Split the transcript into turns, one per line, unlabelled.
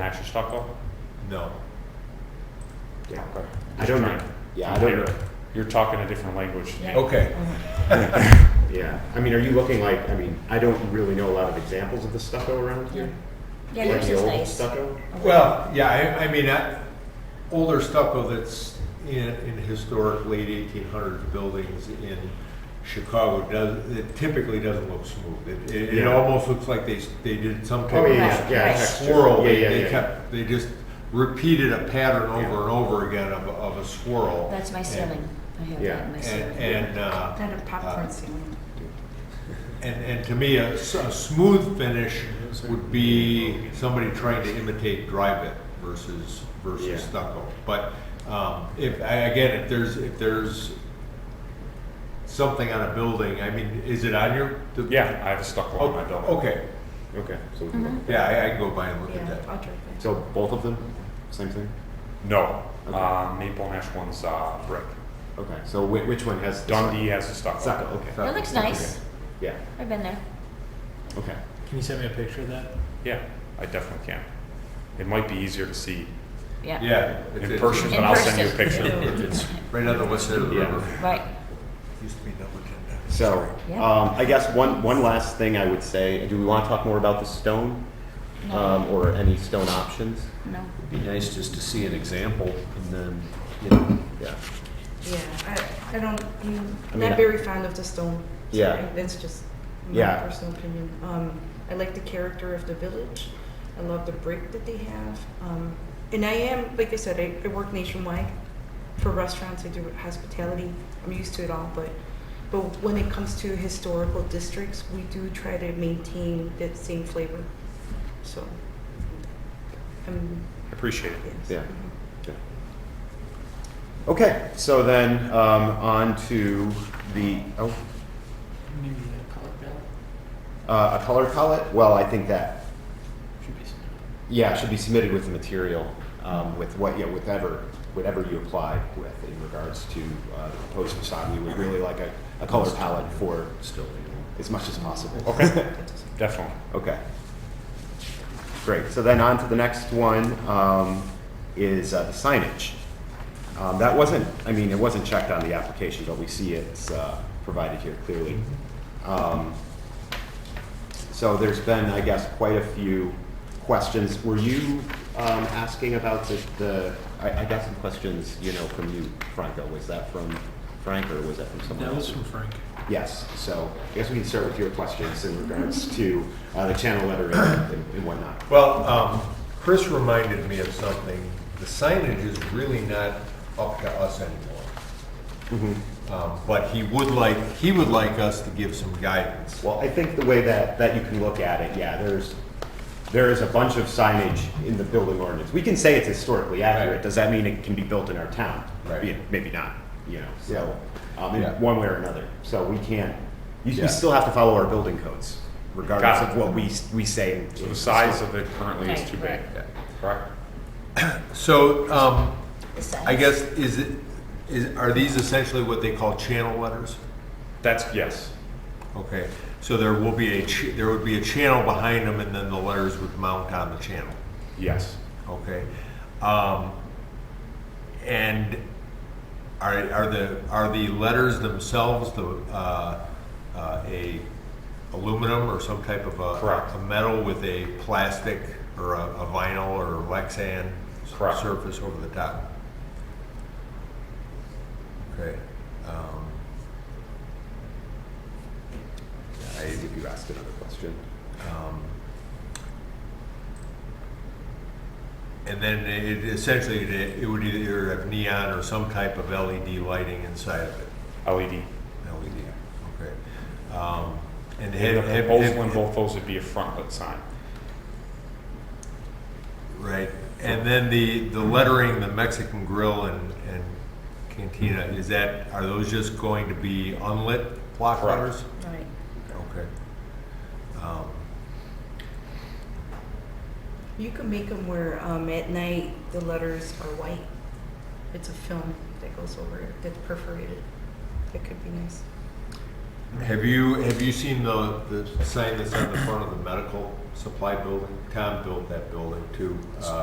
extra stucco?
No.
Yeah.
I don't know. Yeah, I don't know.
You're talking a different language to me.
Okay.
Yeah, I mean, are you looking like, I mean, I don't really know a lot of examples of the stucco around here.
Yeah,
Like
yours
the
is
old
nice.
stucco?
Well, yeah, I, I mean, I- older stucco that's in, in historic late eighteen hundreds buildings in Chicago does, it typically doesn't look smooth. It, it, it
Yeah.
almost looks like they, s- they did some
Oh, yeah,
type
yeah,
Right,
yeah.
right.
of
texture.
swirl.
Yeah,
They,
yeah,
they
yeah.
kept, they just repeated a pattern
Yeah.
over and over again of, of a swirl.
That's my
And-
ceiling. I have
Yeah.
that in my
And,
ceiling.
and, uh.
Kind of popcorn
uh,
ceiling.
And, and to me, a, s- a smooth finish would be somebody trying to imitate dry bit versus,
Yeah.
versus stucco. But, um, if, I- again, if there's, if there's something on a building, I mean, is it on your? the-
Yeah, I have a stucco
Oh,
on my building.
Okay,
Okay, so, we
Mm-hmm.
can look.
yeah, I, I can go by and look at
Yeah,
that.
I'll drink that.
so both of them, same thing?
No,
Okay.
uh, Maple Nash one's uh, brick.
Okay, so whi- which one has? the
Dundee has a stucco.
Stucco, okay,
That looks nice.
yeah,
I've been there.
okay.
Can you send me a picture of that?
Yeah, I definitely can. It might be easier to see
Yeah.
Yeah. it's-
in
it's-
person,
In
but I'll send you a
person.
picture.
It's right on the west side of the
Yeah.
river.
Right.
Used to be number ten.
So,
Yeah.
um, I guess one, one last thing I would say, do we want to talk more about the stone?
No.
Um, or any stone options?
No.
It'd be nice just to see an example and then, you know,
Yeah,
Yeah, I, I don't, I'm
I mean, I-
not very fond of the stone.
Yeah.
Sorry, That's just my
Yeah.
personal opinion. Um, I like the character of the village. I love the brick that they have. Um, and I am, like I said, I, I work nationwide for restaurants. I do hospitality. I'm used to it all, but but when it comes to historical districts, we do try to maintain that same flavor. So, um,
Appreciate it.
yes.
Yeah.
Mhm.
yeah. Okay, so then, um, on to the, oh,
Maybe a color palette
uh, a color palette? Well, I think that
should be something.
Yeah, it should be submitted with the material, um, with what, yeah, whatever, whatever you applied with in regards to, uh, the proposed facade. We would really like a, a color palette for
still, you know.
as much as possible.
Okay, definitely.
Okay. Great, so then on to the next one, um, is uh, the signage. Um, that wasn't, I mean, it wasn't checked on the application, but we see it's, uh, provided here clearly. Um, so there's been, I guess, quite a few questions. Were you, um, asking about the, the, I, I got some questions, you know, from you, Franco. Was that from Frank or was that from someone
That
else?
was from Frank.
Yes, so I guess we can start with your questions in regards to uh, the channel lettering and and whatnot.
Well, um, Chris reminded me of something. The signage is really not up to us anymore. Um, But he would like, he would like us to give some guidance.
Well, I think the way that, that you can look at it, yeah, there's, there is a bunch of signage in the building ordinance. We can say it's historically accurate,
Right.
does that mean it can be built in our town?
Right.
Yeah, Maybe not, you know, so, um, in
Yeah.
one way or another, so we can't, you,
Yeah.
you still have to follow our building codes regardless
Got it.
of what we, we say.
So the size of it currently is
Right,
too big,
Yeah.
correct?
So um,
The size.
I guess, is it, is, are these essentially what they call channel letters?
That's, yes,
Okay, so there will be a, ch- there would be a channel behind them and then the letters would mount on the channel.
yes.
Okay. Um, and are, are the, are the letters themselves the, uh, uh, a aluminum or some type of a?
Correct.
A metal with a plastic or a a vinyl or Lexan?
Correct.
Surface over the top? Okay. um,
I, if you asked another question.
Um, And then it essentially, it it would either have neon or some type of LED lighting inside of it,
LED.
LED, okay. Um, And
In the
have, have-
proposal in
have,
both those would be a frontlit sign.
right, and then the, the lettering, the Mexican grill and, and cantina, is that, are those just going to be unlit block
Correct.
letters?
Right.
Okay. Um,
You can make them where um, at night the letters are white. It's a film that goes over it that's perforated. That could be nice.
Have you, have you seen the, the sign that's on the front of the medical supply building? Tom built that building too. Uh,